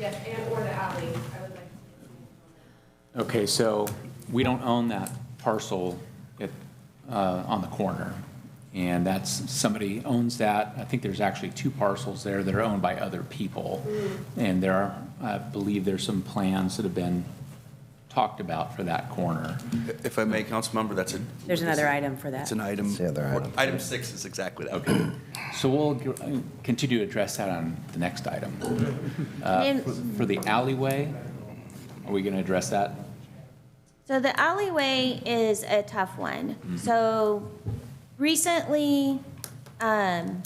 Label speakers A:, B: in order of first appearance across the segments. A: Yes, and or the alley, I would like to.
B: Okay, so we don't own that parcel at, uh, on the corner. And that's, somebody owns that. I think there's actually two parcels there that are owned by other people. And there are, I believe there's some plans that have been talked about for that corner.
C: If I may, Councilmember, that's a.
D: There's another item for that.
C: It's an item.
E: It's the other item.
C: Item six is exactly that.
B: So we'll g- continue to address that on the next item.
F: And
B: For the alleyway, are we going to address that?
F: So the alleyway is a tough one. So recently, um,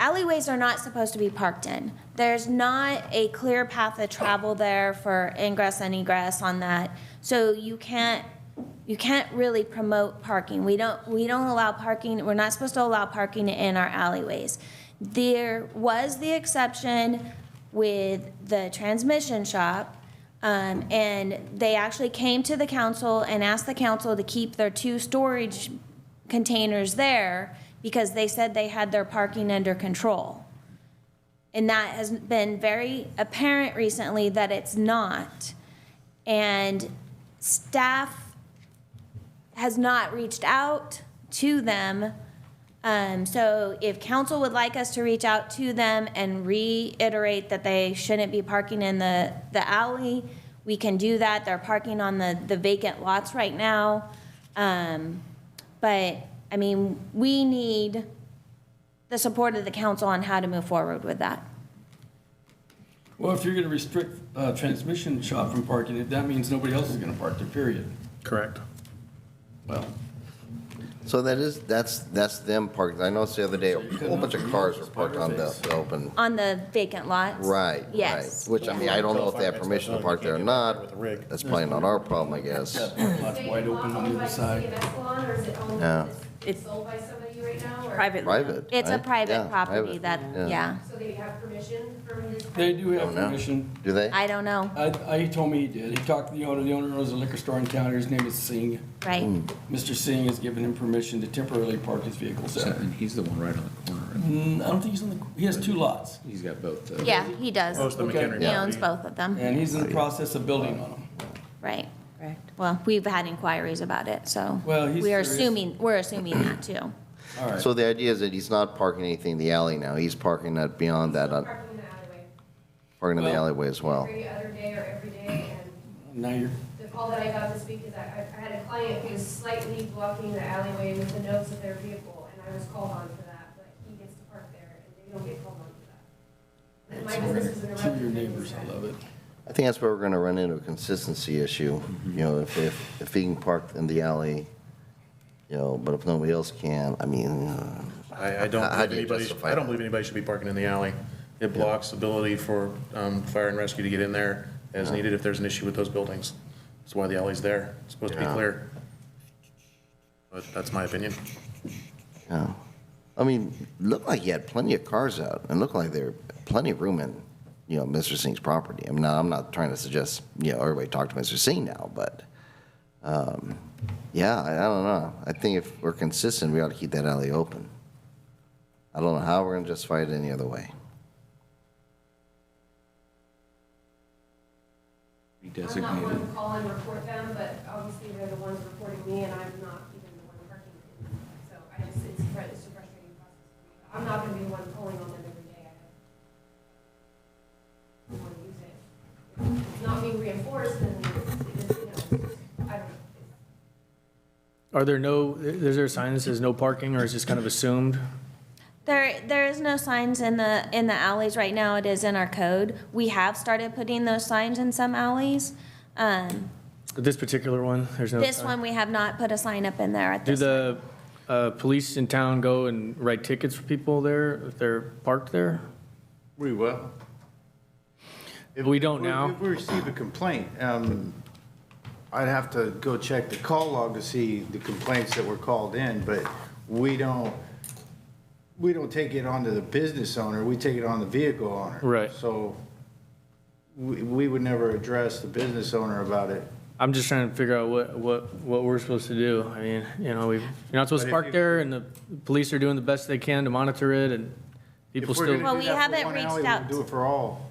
F: alleyways are not supposed to be parked in. There's not a clear path of travel there for ingress and egress on that. So you can't, you can't really promote parking. We don't, we don't allow parking, we're not supposed to allow parking in our alleyways. There was the exception with the transmission shop, um, and they actually came to the council and asked the council to keep their two storage containers there because they said they had their parking under control. And that has been very apparent recently that it's not. And staff has not reached out to them. Um, so if council would like us to reach out to them and reiterate that they shouldn't be parking in the, the alley, we can do that. They're parking on the, the vacant lots right now. Um, but, I mean, we need the support of the council on how to move forward with that.
G: Well, if you're gonna restrict uh, transmission shop from parking, it that means nobody else is gonna park there, period.
H: Correct.
G: Well,
E: So that is, that's, that's them parked. I noticed the other day, a whole bunch of cars were parked on the the open.
F: On the vacant lots?
E: Right, right.
F: Yes.
E: Which, I mean, I don't know if they have permission to park there or not. That's plain not our problem, I guess.
G: lots wide open on the other
A: Is
G: side.
A: it owned by the CNS salon, or is it owned,
E: Yeah.
A: is it
D: It's-
A: sold by somebody right now? or-
D: Private.
E: Private.
F: It's a
E: right?
F: private
E: Yeah,
F: property
E: private.
F: that, yeah.
A: So they have permission from this?
G: They do have
E: Don't know.
G: permission.
E: Do they?
F: I don't know,
G: I, I, he told me he did. He talked to the owner. The owner owns a liquor store in town. His name is Singh.
E: Hmm.
F: right?
G: Mr. Singh has given him permission to temporarily park his vehicles
B: So-
G: there.
B: And he's the one right on the corner.
G: Mm, I don't think he's on the, he has two lots,
B: He's got both. uh,
F: Yeah, he does.
H: Most of the
G: Okay.
H: McHenry
F: He owns
H: property.
F: both of them,
G: and he's in the process of building on them.
F: right.
D: Correct.
F: Well, we've had inquiries about it, so.
G: Well, he's
F: We are
G: serious.
F: assuming, we're assuming that too.
G: All right.
E: So the idea is that he's not parking anything in the alley now. He's parking that beyond that, on-
A: Parking in the alleyway
E: parking in the
G: Well-
E: alleyway as well.
A: every other day or every day, and
G: Now you're,
A: the call that I got this week is that I, I had a client who was slightly blocking the alleyway with the nose of their vehicle, and I was called on for that, but he gets to park there, and they don't get called on for that. And my business is in a
G: to your
A: residential
G: neighbors, I
A: district.
G: love it.
E: I think that's where we're gonna run into a consistency issue, you know, if, if, if he can park in the alley, you know, but if nobody else can, I mean, uh,
H: I, I don't
E: How
H: believe
E: do you
H: anybody,
E: justify
H: I
E: that?
H: don't believe anybody should be parking in the alley. It blocks ability for um, fire and rescue to get in there as needed if there's an issue with those buildings. That's why the alley's there. It's supposed to be
E: Yeah.
H: clear. But that's my opinion.
E: yeah. I mean, looked like he had plenty of cars out, and looked like there were plenty of room in, you know, Mr. Singh's property. I mean, now, I'm not trying to suggest, you know, everybody talk to Mr. Singh now, but, um, yeah, I, I don't know. I think if we're consistent, we ought to keep that alley open. I don't know how we're gonna justify it any other way.
B: He
A: I'm not
B: designated.
A: one to call and report them, but obviously they're the ones reporting me, and I'm not even the one parking. So I just, it's fr- it's a frustrating process. for me. I'm not gonna be the one calling on them every day. I don't want to use it. If It's not being reinforced, then it's, it's, you know, I don't,
I: Are there no, is there a sign that says no parking, or is this kind of assumed?
F: There, there is no signs in the, in the alleys right now, it is in our code. We have started putting those signs in some alleys. Um,
I: This particular one, there's no.
F: This
I: sign?
F: one, we have not put a sign up in there at
I: Do
F: this.
I: the uh, police in town go and write tickets for people there if they're parked there?
J: We will. If-
I: We don't
J: if
I: now?
J: If we receive a complaint, um, I'd have to go check the call log to see the complaints that were called in, but we don't, we don't take it onto the business owner, we take it on the vehicle owner.
I: Right.
J: So we, we would never address the business owner about it.
I: I'm just trying to figure out what, what, what we're supposed to do. I mean, you know, we, you're not supposed
J: But
I: to
J: if
I: park
J: you-
I: there, and the police are doing the best they can to monitor it, and people
J: If we're
I: still.
J: gonna
F: Well,
J: do
F: we
J: that for
F: haven't
J: one
F: reached
J: alley, we
F: out
J: Do it for all.